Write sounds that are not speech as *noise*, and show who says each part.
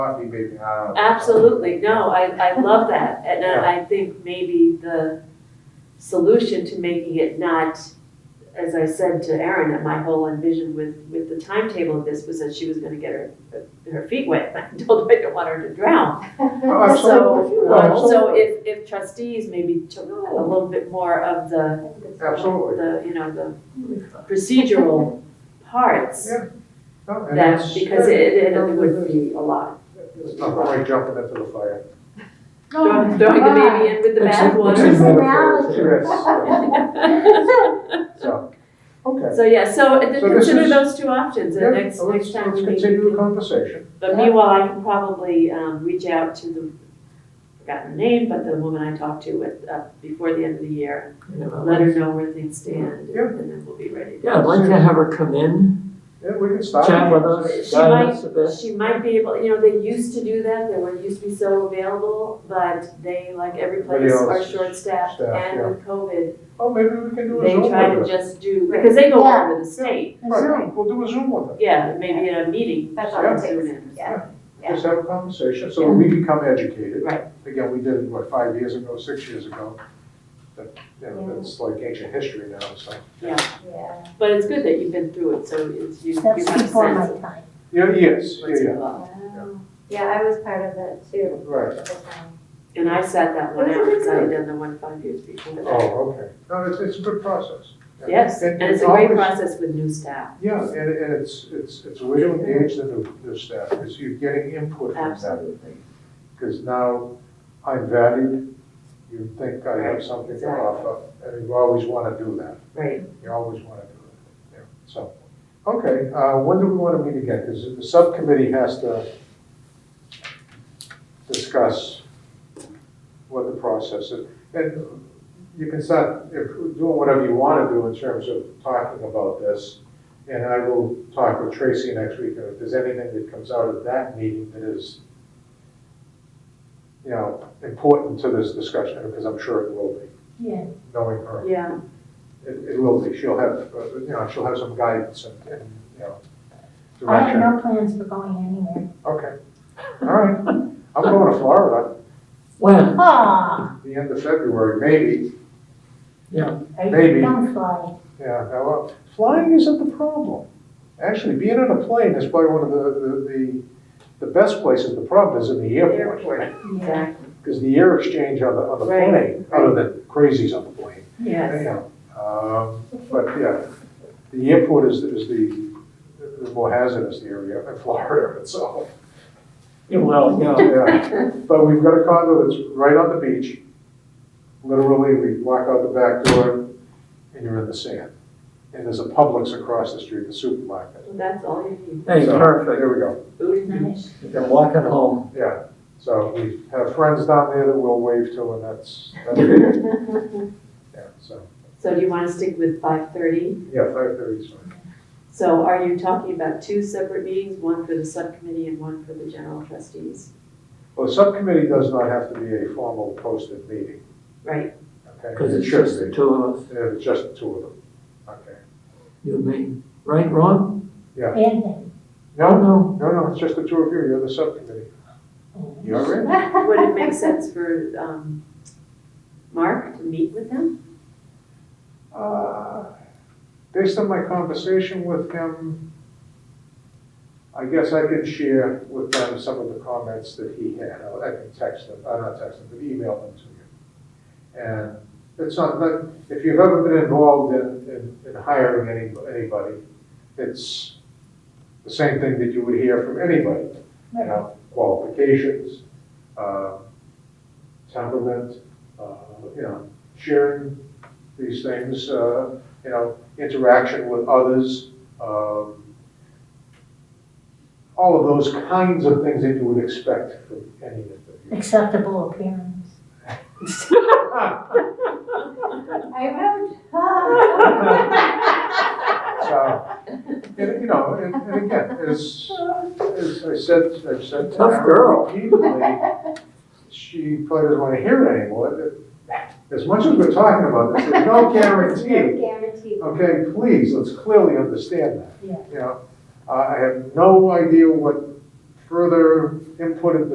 Speaker 1: coffee maybe, uh.
Speaker 2: Absolutely, no, I, I love that, and I I think maybe the solution to making it not, as I said to Erin, that my whole envision with, with the timetable of this was that she was gonna get her, her feet wet, *laughs* I told her I don't want her to drown.
Speaker 1: Oh, absolutely.
Speaker 2: So,
Speaker 1: No,
Speaker 2: um, so
Speaker 1: absolutely. Oh.
Speaker 2: if, if trustees maybe took a little bit more of the,
Speaker 1: Absolutely.
Speaker 2: the, you know, the
Speaker 1: *laughs*
Speaker 2: procedural parts,
Speaker 1: Yeah, No, and
Speaker 2: that,
Speaker 1: it's-
Speaker 2: because it, it would be a lot.
Speaker 1: It's not quite jumping into the fire.
Speaker 3: Oh,
Speaker 2: Throwing throwing the baby in with the
Speaker 1: Oh It's a-
Speaker 2: bathwater.
Speaker 1: It's a metaphor, it's-
Speaker 2: *laughs*
Speaker 1: yes, yes. So, okay.
Speaker 2: So, yeah, so uh,
Speaker 1: So this
Speaker 2: consider
Speaker 1: is-
Speaker 2: those two options,
Speaker 1: Yeah,
Speaker 2: and next,
Speaker 1: well, let's-
Speaker 2: next time
Speaker 1: Let's
Speaker 2: we meet.
Speaker 1: continue the conversation.
Speaker 2: But meanwhile, I can probably, um, reach out to the, forgotten her name, but the woman I talked to with, uh, before the end of the year, let her know where things stand,
Speaker 1: Uh, Yeah.
Speaker 2: and then we'll be ready.
Speaker 4: Yeah, I'd like to have her come in,
Speaker 1: Yeah, we can start.
Speaker 4: chat with us,
Speaker 2: She
Speaker 4: guide us a bit.
Speaker 2: She might be able, you know, they used to do that, they were, used to be so available, but they, like every place,
Speaker 1: Everybody
Speaker 2: are
Speaker 1: else is
Speaker 2: short-staffed,
Speaker 1: staffed,
Speaker 2: and
Speaker 1: yeah.
Speaker 2: with COVID,
Speaker 1: Oh, maybe we can do a
Speaker 2: they
Speaker 1: Zoom
Speaker 2: try to
Speaker 1: with her.
Speaker 2: just do, because they go
Speaker 3: Yeah.
Speaker 2: over the state,
Speaker 3: That's
Speaker 1: Right,
Speaker 3: right.
Speaker 1: We'll do a Zoom with her.
Speaker 2: yeah, maybe in a meeting.
Speaker 3: That's all it
Speaker 2: soon
Speaker 3: takes,
Speaker 2: in.
Speaker 3: yeah. Yeah.
Speaker 1: Just have a conversation, so that we become educated.
Speaker 2: Right.
Speaker 1: Again, we did it, what, five years ago, six years ago? That, you know, that's like ancient history now, so.
Speaker 3: Yeah.
Speaker 2: But it's good that you've been through it, so it's, you, you have a
Speaker 3: That's
Speaker 2: sense of
Speaker 3: before my time.
Speaker 1: Yeah, yes, yeah,
Speaker 2: what's
Speaker 1: yeah,
Speaker 2: involved.
Speaker 3: Um, Yeah, I was part of that too.
Speaker 1: right.
Speaker 3: at the time.
Speaker 2: And I sat that one
Speaker 3: That's
Speaker 2: out, because I had
Speaker 1: good.
Speaker 2: done the one five years before that.
Speaker 1: Oh, okay. No, it's, it's a good process.
Speaker 2: Yes, and it's a
Speaker 1: always-
Speaker 2: great process with new staff,
Speaker 1: Yeah, and, and it's, it's, it's a way to engage the, new- the staff, is you're getting input from them.
Speaker 2: absolutely.
Speaker 1: Because now I'm valued, you think I have something to offer, and you always want to do that.
Speaker 2: Right,
Speaker 1: You always want to do it, yeah, so. Okay, uh, when do we want to meet again? Because the subcommittee has to discuss what the process is. And you can start if- doing whatever you want to do in terms of talking about this. And I will talk with Tracy next week, and if there's anything that comes out of that meeting that is, you know, important to this discussion, because I'm sure it will be,
Speaker 3: Yeah.
Speaker 1: knowing her.
Speaker 2: yeah,
Speaker 1: It, it will be, she'll have, uh, you know, she'll have some guidance and, and, you know,
Speaker 3: I
Speaker 1: direction.
Speaker 3: have no plans for going anywhere.
Speaker 1: Okay, all right, I'm going to Florida,
Speaker 4: When?
Speaker 3: Ah,
Speaker 1: the end of February, maybe, Maybe.
Speaker 3: don't fly.
Speaker 1: yeah, now, well, flying isn't the problem. Actually, being on a plane is probably one of the, the, the, the best places, the problem is in the airport.
Speaker 3: Yeah.
Speaker 2: exactly,
Speaker 1: Because the air exchange on the, on the
Speaker 2: Right,
Speaker 1: plane, other than crazies on the plane,
Speaker 2: yes.
Speaker 1: anyhow. Um, but, yeah, the airport is, is the, the more hazardous area in Florida *laughs* itself.
Speaker 4: Well, yeah.
Speaker 1: Oh, Yeah, but we've got a condo that's right on the beach. Literally, we walk out the back door and you're in the sand. And there's a Publix across the street, the supermarket.
Speaker 2: Well, That's all you need,
Speaker 4: Hey,
Speaker 1: So,
Speaker 4: perfect.
Speaker 1: There we go,
Speaker 2: food and
Speaker 3: Nice.
Speaker 4: You can walk it home.
Speaker 1: yeah. So we have friends down there that we'll wave to and that's,
Speaker 2: *laughs*
Speaker 1: that's it. yeah, so,
Speaker 2: So do you wanna stick with five thirty?
Speaker 1: yeah, five thirty is fine.
Speaker 2: So are you talking about two separate meetings, one for the subcommittee and one for the general trustees?
Speaker 1: Well, the subcommittee does not have to be a formal posted meeting,
Speaker 2: Right,
Speaker 1: okay?
Speaker 4: Because
Speaker 1: It
Speaker 4: it's
Speaker 1: should
Speaker 4: just the
Speaker 1: be.
Speaker 4: two of us,
Speaker 1: Yeah, It's just the two of them, okay.
Speaker 4: you and me. Right, Ron?
Speaker 3: And then.
Speaker 4: Oh,
Speaker 1: No,
Speaker 4: no.
Speaker 1: no, no, it's just the two of you, you're the subcommittee. You're
Speaker 3: *laughs*
Speaker 1: in.
Speaker 2: would it make sense for, um, Mark to meet with them?
Speaker 1: Uh, Based on my conversation with him, I guess I can share with them some of the comments that he had. I I can text them, uh, not text them, but email them to you. And it's not, that if you've ever been involved in, in- in hiring any, anybody, it's the same thing that you would hear from anybody you know, qualifications, uh, temperament, uh, you know, sharing these things, uh, you know, interaction with others, um, all of those kinds of things that you would expect from any interview.
Speaker 3: Acceptable appearance. *laughs*
Speaker 1: Ah,
Speaker 3: I wrote.
Speaker 1: So, and, you know, and, and again, as, as I said, I've said. to
Speaker 4: Tough
Speaker 1: her
Speaker 4: girl.
Speaker 1: repeatedly, She probably doesn't want to hear it anymore. As much as we're talking about this, there's no guarantee.
Speaker 3: Guaranteed.
Speaker 1: Okay, please, let's clearly understand that.
Speaker 3: Yeah.
Speaker 1: You know, I I have no idea what further input at the